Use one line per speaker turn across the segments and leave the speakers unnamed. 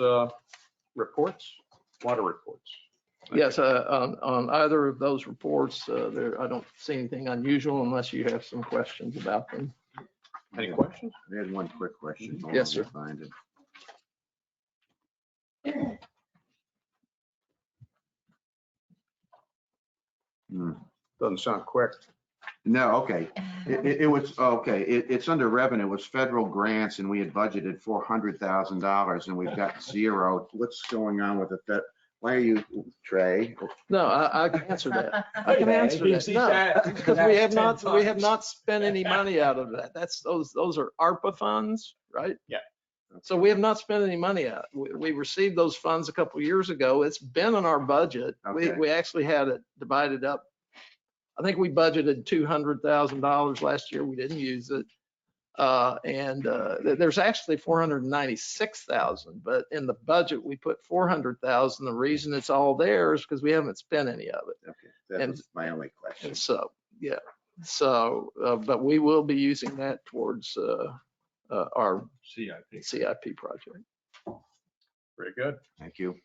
uh, reports, water reports.
Yes, uh, on, on either of those reports, uh, there, I don't see anything unusual unless you have some questions about them.
Any questions?
I had one quick question.
Mm-hmm.
Hold
Yes,
on,
sir.
I'll Find it. Hmm.
Doesn't sound quick.
No, okay. It, it- it was, okay, it, it's under revenue, it was federal grants and we had budgeted four hundred thousand dollars and we've got zero. What's going on with it? That, why are you, Trey?
No, I, I can answer that. I
Okay.
can answer that.
He's- he's
No,
asked- he's
because we
asked
have
10
not, we have
times.
not spent any money out of that. That's, those, those are ARPA funds, right?
Yeah.
So we have not spent any money out. We, we received those funds a couple years ago. It's been in our budget. We,
Okay.
we actually had it divided up. I think we budgeted two hundred thousand dollars last year. We didn't use it. Uh, and, uh, there- there's actually four hundred and ninety-six thousand, but in the budget, we put four hundred thousand. The reason it's all there is because we haven't spent any of it.
Okay, That
And-
was my only question.
And so, yeah, so, uh, but we will be using that towards, uh, uh, our
CIP.
CIP project.
Very good.
Thank you.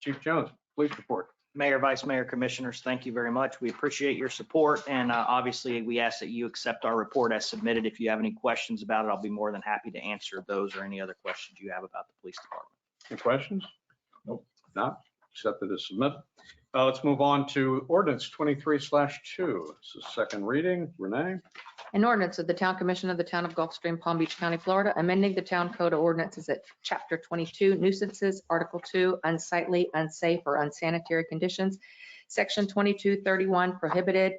Chief Jones, police report.
Mayor, Vice Mayor, Commissioners, thank you very much. We appreciate your support and uh, obviously we ask that you accept our report as submitted. If you have any questions about it, I'll be more than happy to answer those or any other questions you have about the police department.
Any questions? Nope. Not accepted as submitted. Uh, Let's move on to ordinance 23 slash 2. This is second reading. Renee?
An ordinance of the Town Commission of the Town of Gulfstream, Palm Beach County, Florida, amending the Town Code of Ordinances at Chapter 22 nuisances, Article 2 unsightly, unsafe, or unsanitary conditions, Section 2231 prohibited,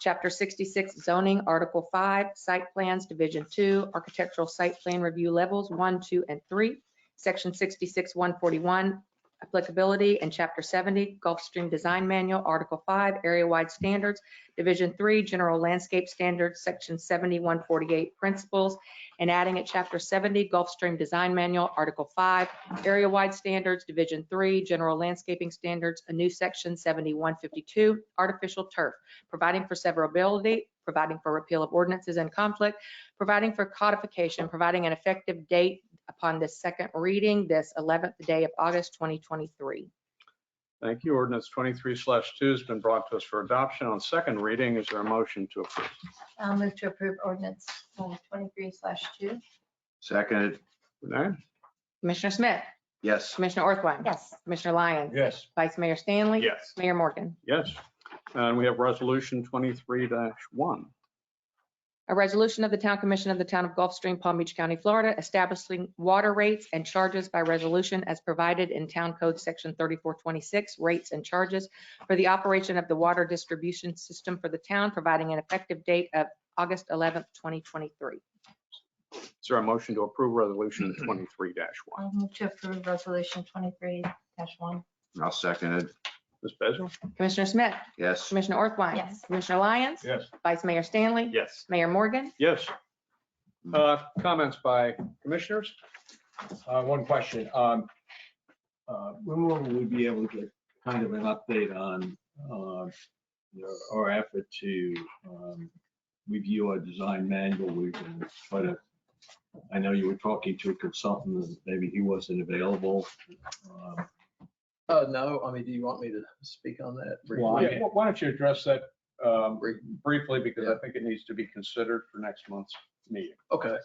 Chapter 66 zoning, Article 5 site plans, Division 2 architectural site plan review levels 1, 2, and 3, Section 66 141 applicability, and Chapter 70 Gulfstream Design Manual, Article 5 area-wide standards, Division Three, General Landscape Standards, Section 7148 Principles, and adding at Chapter 70 Gulfstream Design Manual, Article 5, Area-Wide Standards, Division Three, General Landscaping Standards, a new Section 7152, Artificial Turf, providing for severability, providing for repeal of ordinances in conflict, providing for codification, providing an effective date upon this second reading, this 11th day of August 2023.
Thank you. Ordinance 23 slash 2 has been brought to us for adoption on second reading. Is there a motion to approve?
I'll move to approve ordinance um, 23 slash 2.
Seconded,
Renee?
Commissioner Smith,
yes.
Commissioner Orthwyne,
Yes.
Commissioner Lyons,
Yes.
Vice Mayor Stanley.
Yes.
Mayor Morgan.
Yes. And we have resolution 23 dash 1.
A resolution of the Town Commission of the Town of Gulfstream, Palm Beach County, Florida, establishing water rates and charges by resolution as provided in Town Code Section 3426, rates and charges for the operation of the water distribution system for the town, providing an effective date of August 11th, 2023.
Is there a motion to approve resolution 23 dash 1?
I'll move to approve resolution 23 dash 1.
I'll second it,
Ms. Bezel?
Commissioner Smith,
yes.
Commissioner Orthwyne.
Yes.
Commissioner Lyons.
Yes.
Vice Mayor Stanley.
Yes.
Mayor Morgan.
Yes. Uh, Comments by commissioners?
Uh, One question. Um, uh, When will we be able to get kind of an update on uh, you know, our effort to um, review our design manual? We can try to, I know you were talking to a consultant, and maybe he wasn't available. Um,
Uh, no, I mean, do you want me to speak on that?
Why?
briefly?
Yeah, Why don't you address that um, briefly, because I think it needs to be considered for next month's meeting.
Okay,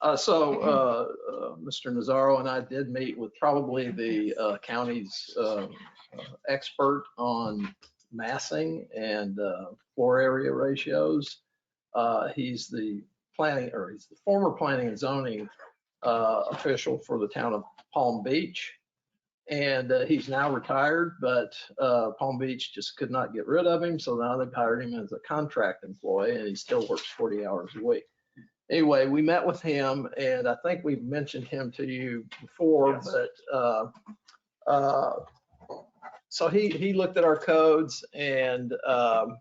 uh, so, uh, uh, Mr. Nazaro and I did meet with probably the, uh, county's, uh, uh, expert on massing and, uh, floor area ratios. Uh, he's the planning, or he's the former planning and zoning, uh, official for the town of Palm Beach. And, uh, he's now retired, but, uh, Palm Beach just could not get rid of him, so now they've hired him as a contract employee, and he still works forty hours a week anyway, we met with him and I think we've mentioned him to you before,
Yes.
but, uh, uh, so he, he looked at our codes and, um,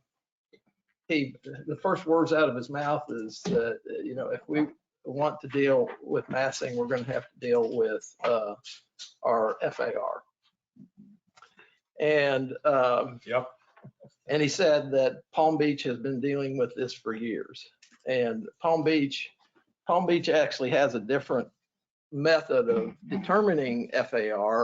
he, the first words out of his mouth is that, you know, if we want to deal with massing, we're gonna have to deal with, uh, our FAR. And, um,
Yep.
And he said that Palm Beach has been dealing with this for years and Palm Beach, Palm Beach actually has a different method of determining FAR